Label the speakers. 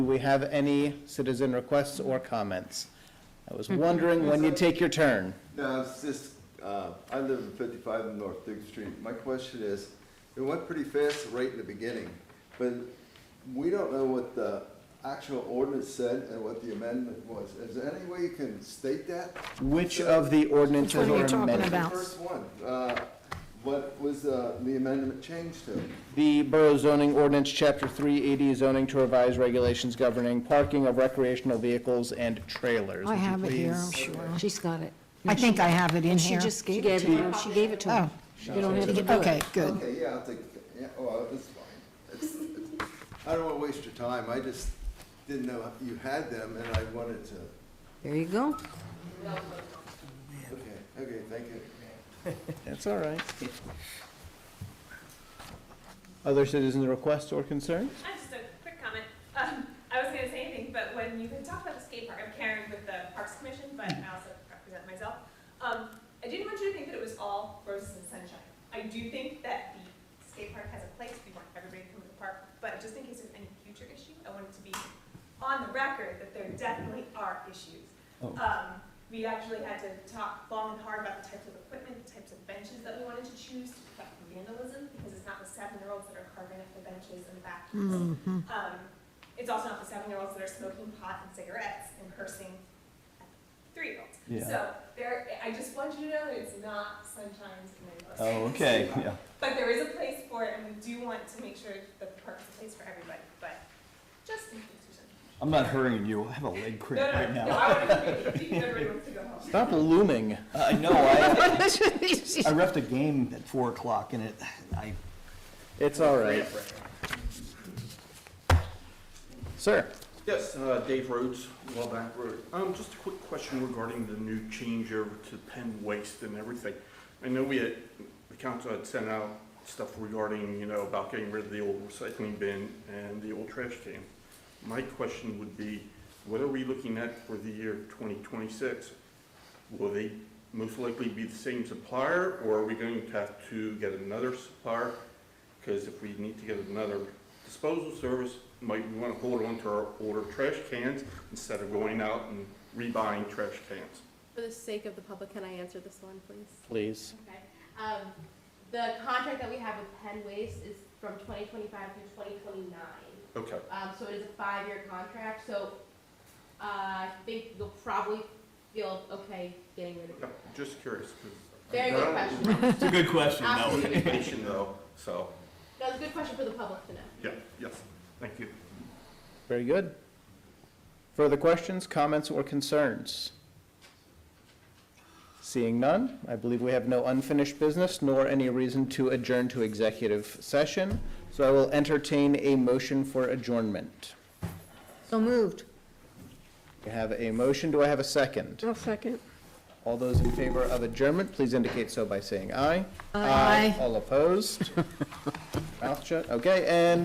Speaker 1: Do we have any citizen requests or comments? I
Speaker 2: Hmm.
Speaker 1: was wondering when you'd take your turn.
Speaker 3: No, it's just, uh, I live in fifty-five North Duke Street. My question is, it went pretty fast right in the beginning, but we don't know what the actual ordinance said and what the amendment was. Is there any way you can state that?
Speaker 1: Which of the ordinances
Speaker 2: Which one are
Speaker 1: are
Speaker 2: you talking
Speaker 1: amended?
Speaker 2: about?
Speaker 3: The first one, uh, what was, uh, the amendment changed to?
Speaker 1: The Borough zoning ordinance, Chapter 380, zoning to revise regulations governing parking of recreational vehicles and trailers.
Speaker 2: I
Speaker 1: Would you
Speaker 2: have it here, I'm
Speaker 1: please-
Speaker 2: sure.
Speaker 4: She's got it.
Speaker 2: I think I have it in
Speaker 4: And she
Speaker 2: here.
Speaker 4: just gave it to you. She gave it to
Speaker 2: Oh,
Speaker 4: him. You don't have to do it.
Speaker 2: okay, good.
Speaker 3: Okay, yeah, I think, yeah, oh, that's fine. It's- it's- I don't wanna waste your time. I just didn't know you had them and I wanted to,
Speaker 4: There you go.
Speaker 3: okay, okay, thank you.
Speaker 1: That's all right. Other citizen requests or concerns?
Speaker 5: Uh, just a quick comment. Um, I wasn't gonna say anything, but when you can talk about the skate park, I'm Karen with the Parks Commission, but I also represent myself. Um, I didn't want you to think that it was all roses and sunshine. I do think that the skate park has a place. We want everybody to come to the park, but just in case there's any future issue, I want it to be on the record that there definitely are issues.
Speaker 1: Oh.
Speaker 5: Um, we actually had to talk long and hard about the types of equipment, the types of benches that we wanted to choose to protect from vandalism, because it's not the seven-year-olds that are carving up the benches in the back. Um, it's also not the seven-year-olds that are smoking pot and cigarettes and cursing at the three-year-olds.
Speaker 1: Yeah.
Speaker 5: So there, I just want you to know that it's not sunshine and rainbows.
Speaker 1: Oh, okay, yeah.
Speaker 5: But there is a place for it, and we do want to make sure that the park's a place for everybody, but just in case there's any.
Speaker 6: I'm not hurrying you. I have a leg cramp
Speaker 5: No,
Speaker 6: right
Speaker 5: no, no,
Speaker 6: now.
Speaker 5: I want to, everyone wants to go home.
Speaker 1: Stop looming.
Speaker 6: I know. Uh, I, I ref a game at four o'clock and it, I,
Speaker 1: It's all right. Sir?
Speaker 7: Yes, uh, Dave Rhodes, Wellback Road. Um, Just a quick question regarding the new change over to Penn Waste and everything. I know we had, the council had sent out stuff regarding, you know, about getting rid of the old recycling bin and the old trash can. My question would be, what are we looking at for the year 2026? Will they most likely be the same supplier, or are we going to have to get another supplier? Because if we need to get another disposal service, might we want to hold on to our older trash cans instead of going out and rebuying trash cans?
Speaker 8: For the sake of the public, can I answer this one, please?
Speaker 1: Please.
Speaker 8: Okay. Um, the contract that we have with Penn Waste is from twenty twenty-five to twenty twenty-nine.
Speaker 7: Okay,
Speaker 8: Um, so it is a five-year contract, so, uh, I think you'll probably feel okay getting rid of
Speaker 7: yeah,
Speaker 8: it.
Speaker 7: just curious. 'cause-
Speaker 8: Very good question.
Speaker 6: it's a good question though.
Speaker 8: Absolutely good question.
Speaker 7: Information though, so,
Speaker 8: No, it's a good question for the public to know.
Speaker 7: yeah, yes, thank you.
Speaker 1: Very good. Further questions, comments, or concerns? Seeing none, I believe we have no unfinished business nor any reason to adjourn to executive session, so I will entertain a motion for adjournment.
Speaker 4: So moved.
Speaker 1: I have a motion, do I have a second?
Speaker 2: I'll second.
Speaker 1: All those in favor of adjournment, please indicate so by saying aye.
Speaker 4: Aye.
Speaker 1: All opposed? Mouth shut, okay, and